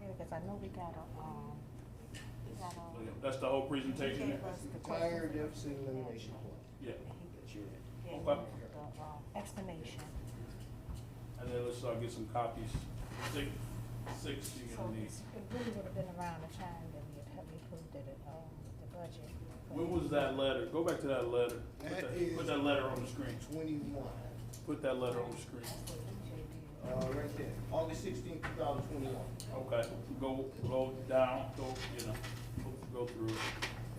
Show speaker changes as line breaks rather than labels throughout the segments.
because I know we got a, um, we got a.
That's the whole
he
presentation
gave
there?
us the
Entire
questions.
deficit elimination plan
Yeah,
that you're in.
Yeah,
Okay.
the, um, explanation.
and then let's, uh, get some copies, six, six you're
So
gonna need.
it's- it really would have been around the time that we had helped approve the, um, the budget.
When was that letter? Go back to that letter. Put
That
that,
is-
put that letter on the screen.
Twenty-one.
Put that letter on the screen.
That's what EJ did.
Uh, right there, August sixteenth, two thousand twenty-one.
Okay, go, go down, go, you know, go through it.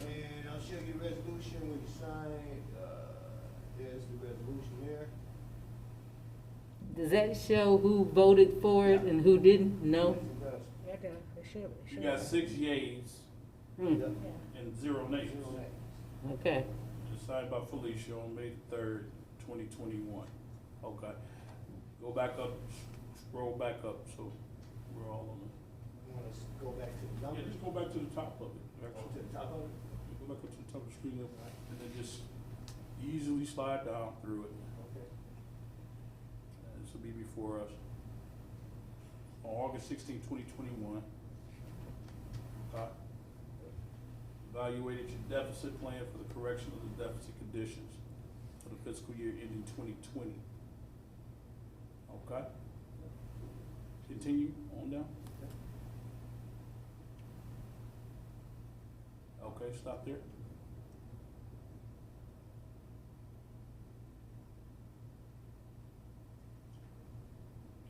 And I'll show you the resolution when you sign it, uh, there's the resolution there.
Does that show who voted for it and who didn't?
Yeah,
No?
the- it should, it should.
You got six yays
Hmm,
Yeah.
and zero nays.
Zero names.
okay.
It's signed by Felicia on May the third, twenty twenty-one. Okay, go back up, s- scroll back up, so we're all on it.
You wanna s- go back to the
Yeah,
numbers?
just go back to the top of it,
Go to
actually.
the top of it?
Go back up to the top of the screen, there, and then just easily slide down through it.
Okay.
This will be before us on August 16, 2021. Uh, Evaluated your deficit plan for the correction of the deficit conditions for the fiscal year ending 2020. Okay? Continue on down. Okay, stop there.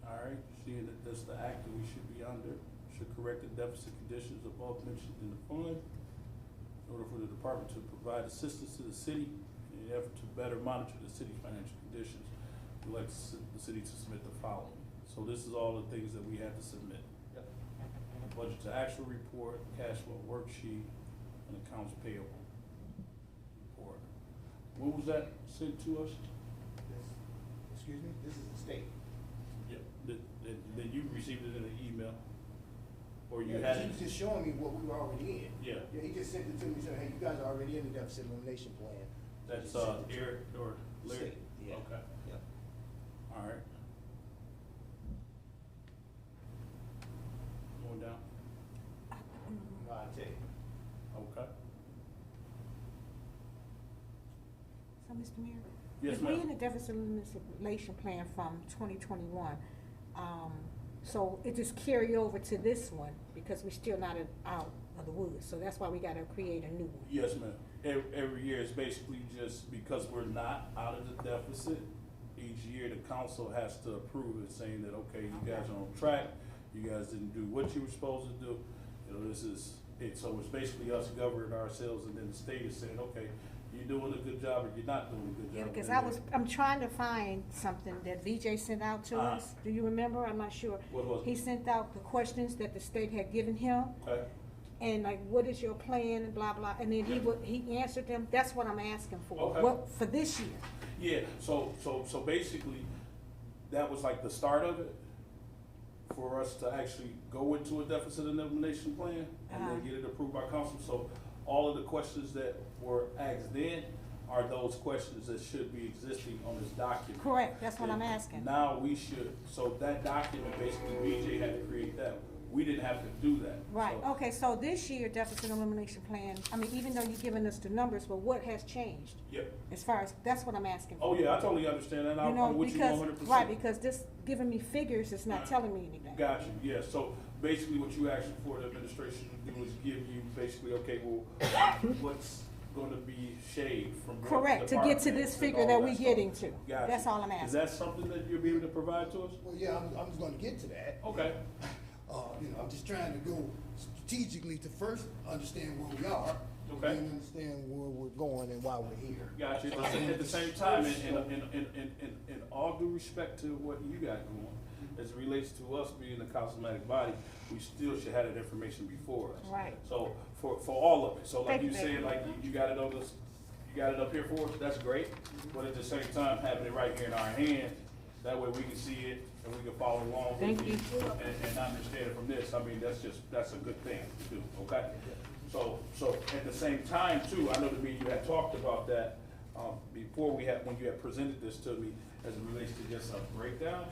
All right, seeing that that's the act that we should be under, should correct the deficit conditions above mentioned in the fund in order for the department to provide assistance to the city in an effort to better monitor the city's financial conditions. We'd like to s- the city to submit the following. So this is all the things that we have to submit.
Yep.
Budget to actual report, cash flow worksheet, and accounts payable report. When was that sent to us?
This- Excuse me, this is the state.
Yep. That, that, that you received it in an email? Or you
Yeah,
had
He was
it?
just showing me what we were already in.
Yeah.
Yeah, he just sent it to me, saying, hey, you guys are already in the deficit elimination plan.
That's,
He
uh,
sent it to me.
Eric or Larry?
State, yeah.
Okay,
Yep.
all right. Going down,
No, I tell you.
okay.
So, Mr. Mayor?
Yes,
If we
ma'am.
in the deficit elimination plan from twenty twenty-one, um, so it just carry over to this one, because we are still not in- out of the woods, so that's why we gotta create a new one.
Yes, ma'am. Every, every year is basically just because we're not out of the deficit, each year the council has to approve it, saying that, okay, you guys are on track, you guys didn't do what you were supposed to do. You know, this is, it, so it's basically us governing ourselves, and then the state is saying, okay, you're doing a good job, or you're not doing a good job.
Yeah, because
And
I
then-
was, I'm trying to find something that VJ sent out to
Uh-huh.
us, do you remember? I'm not sure.
What was it?
He sent out the questions that the state had given him,
Okay,
and like, what is your plan, and blah, blah, and then he
Yeah.
would, he answered them, that's what I'm asking for,
Okay.
what, for this year.
yeah, so, so, so basically, that was like the start of it, for us to actually go into a deficit elimination plan, and
Uh-huh.
then get it approved by council, so all of the questions that were asked then are those questions that should be existing on this document.
Correct, that's what I'm asking.
Now, we should, so that document, basically, BJ had to create that, we didn't have to do that.
Right,
So-
okay, so this year deficit elimination plan, I mean, even though you're giving us the numbers, but what has changed?
Yep,
As far as, that's what I'm asking.
oh yeah, I totally understand that,
You
I'm,
know,
I'm with you one
because,
hundred percent.
right, because this giving me figures is not telling me anything.
Got you, yeah, so basically what you asked for the administration to do is give you basically, okay, well, what's gonna be shaved from what
Correct, to get to
departments
this
and
figure
all
that we
stuff.
getting to.
Got
That's
you.
all I'm
Is
asking.
that something that you'll be able to provide to us?
Well, yeah, I'm, I'm just gonna get to that.
Okay,
Uh, you know, I'm just trying to go strategically to first understand where we are. and
Okay.
Then understand where we're going and why we're here.
got you, At the- at the same time, and, and, and, and, and, and- and all due respect to what you got going, as it relates to us being a councilmatic body, we still should have that information before us.
Right.
So, for, for all of it, so like
Thank
you
you.
said, like, you- you got it on this, you got it up here for us, that's great, but at the same time, having it right here in our hands, that way we can see it and we can follow along. with
Thank
it
you.
And, and understand it from this, I mean, that's just, that's a good thing to do, okay? So, so at the same time too, I know that me, you had talked about that, um, before we had, when you had presented this to me, as it relates to just a breakdown,